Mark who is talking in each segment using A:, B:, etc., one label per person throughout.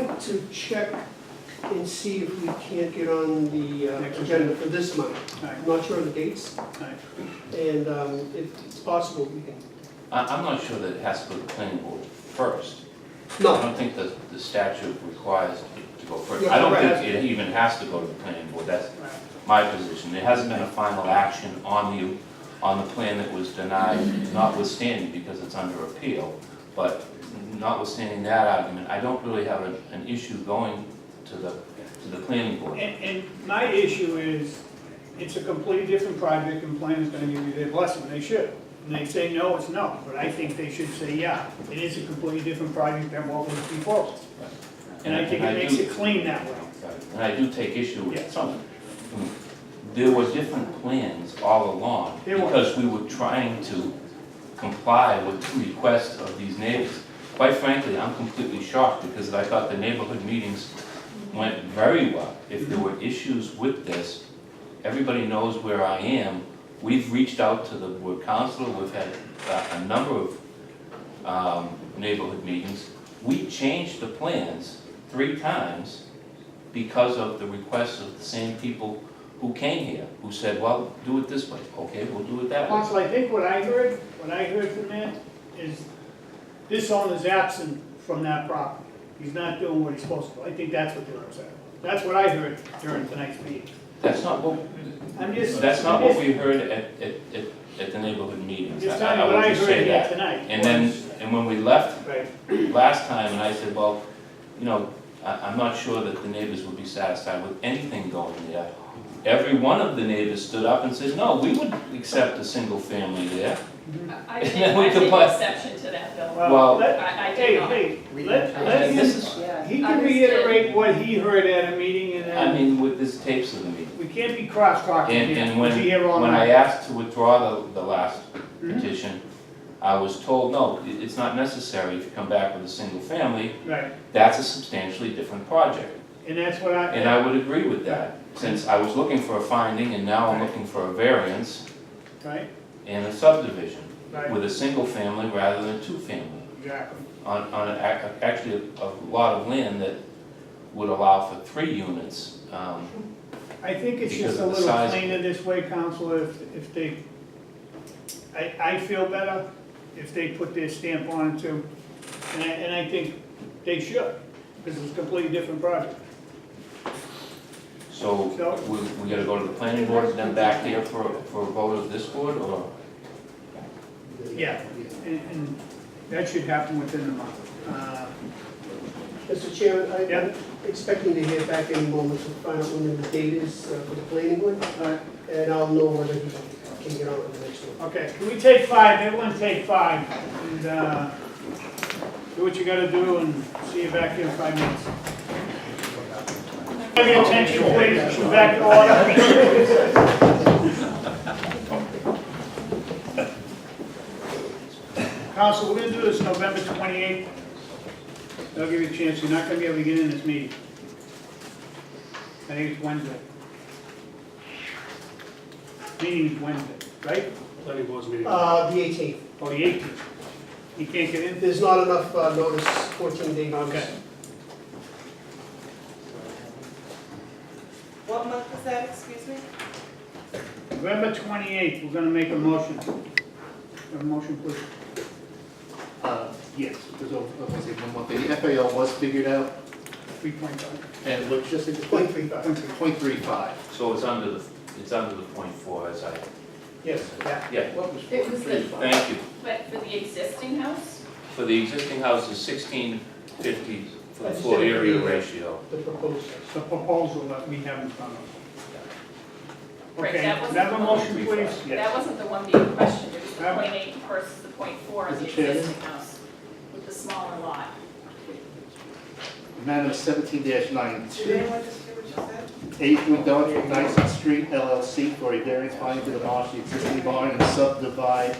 A: to check and see if we can't get on the uh,
B: Next
A: agenda
B: agenda.
A: for this month. I'm not sure of the dates,
B: Alright.
A: and um, if it's possible, we can,
C: I, I'm not sure that it has to go to the planning board first. I
A: no,
C: don't think the, the statute requires it to go first.
A: Yeah,
C: I don't
A: right.
C: think it even has to go to the planning board, that's my position. There hasn't been a final action on the, on the plan that was denied, notwithstanding, because it's under appeal. But notwithstanding that argument, I don't really have an, an issue going to the, to the planning board.
B: And, and my issue is, it's a completely different project and planning's gonna give you their blessing, they should. And they say no, it's no, but I think they should say, yeah, it is a completely different project than what was before. And I think it makes
C: do-
B: it clean that way.
C: And I do take issue with
B: Yeah.
C: some. There were different plans all along,
B: There were.
C: because we were trying to comply with the requests of these neighbors. Quite frankly, I'm completely shocked, because I thought the neighborhood meetings went very well. If there were issues with this, everybody knows where I am. We've reached out to the board council, we've had uh, a number of um, neighborhood meetings. We changed the plans three times because of the requests of the same people who came here, who said, well, do it this way, okay, we'll do it that way.
B: Council, I think what I heard, what I heard from that is this owner's absent from that property. He's not doing what he's supposed to. I think that's what they were saying. That's what I heard during tonight's meeting.
C: That's not what,
B: I'm just.
C: that's not what
B: I'm
C: we heard at, at, at, at the neighborhood meetings.
B: Just
C: I-
B: telling
C: I
B: you
C: would
B: what I
C: just say
B: heard here
C: that.
B: tonight.
C: And then, and when we left
B: Right.
C: last time, and I said, well, you know, I, I'm not sure that the neighbors would be satisfied with anything going there. Every one of the neighbors stood up and said, no, we would accept a single family there.
D: I I
C: Yeah,
D: take,
C: we
D: I
C: can
D: take
C: put-
D: exception to that, Bill.
C: Well-
B: Well, let,
D: I, I
B: hey,
D: do not.
B: hey, let, let
C: And this
B: him,
C: is,
E: Yeah.
B: he can
D: Understood.
B: reiterate what he heard at a meeting and
C: I
B: then,
C: mean, with this tapes of the meeting.
B: we can't be cross-talking
C: And,
B: here.
C: and
B: We'll
C: when,
B: be here all
C: when I
B: night.
C: asked to withdraw the, the last
B: Mhm.
C: petition, I was told, no, it- it's not necessary if you come back with a single family,
B: Right,
C: that's a substantially different project.
B: and that's what I.
C: And I would agree with that, since I was looking for a finding and now I'm looking for a variance
B: Right,
C: and a subdivision
B: right,
C: with a single family rather than two family
B: exactly.
C: on, on a- a- actually a a lot of land that would allow for three units. Um,
B: I think it's
C: Because
B: just a
C: of the
B: little
C: size.
B: cleaner this way, Counselor, if, if they, I, I feel better if they put their stamp on it too. And I, and I think they should, because it's a completely different project.
C: So we, we gotta go to the planning board, then back here for, for a vote of this board or?
B: Yeah. And, and that should happen within the month. Uh,
A: Mr. Chairman, I-
B: Yeah.
A: I'm expecting to hear back any moment to find out when the date is uh, for the planning board,
B: Alright.
A: and I'll know whether he can get on with the next one.
B: Okay, can we take five, everyone take five, and, uh, do what you gotta do, and see you back here in five minutes. Have your attention, please, come back to order. Council, we're gonna do this November twenty-eighth. They'll give you a chance, you're not gonna be able to get in this meeting. I think it's Wednesday. Meeting's Wednesday, right?
F: Planning board's meeting.
A: Uh, The 18th,
B: Oh, the eighteenth. You can't get in?
A: there's not enough uh, notice, 14 day notice.
B: Okay.
E: What month was that, excuse me?
B: November twenty-eighth, we're gonna make a motion. A motion, please.
F: Uh, Yes, there's, a- I want to say one more thing, the FAL was figured out,
B: Three point five.
F: and let's just say
A: Point three five.
F: Point three five.
C: So it's under the, it's under the point four, as I,
B: Yes. Yeah.
C: yeah,
F: What was
D: It was the-
F: 0.35?
C: thank you.
D: But for the existing house,
C: For the existing house is sixteen fifty for the floor area ratio.
A: The proposal.
B: The proposal that we have in front of us.
D: Right,
B: Okay,
D: that was-
B: have a motion, please?
D: that wasn't the one being questioned, it was the
B: That one.
D: point eight versus the point four on
F: Mr.
D: the
F: Chairman?
D: existing house with the smaller lot.
F: Matter seventeen dash nine
E: Did anyone just hear what you said?
F: Eight McDonald from Dyson Street LLC for a variance finding to demolish the existing barn and subdivide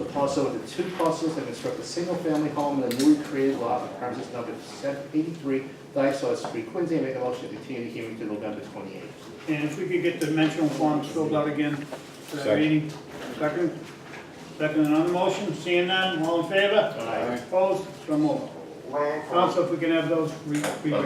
F: the parcel into two parcels and construct a single-family home in a newly created lot on premises number 783 Dyson Street, Quincy. I Make a motion to continue the hearing to November twenty-eighth.
B: And if we could get the dimensional forms filled out again for that meeting. Second. Second on the motion, seeing none, all in favor? Aye. Opposed? So moved. Council, if we can have those re- re-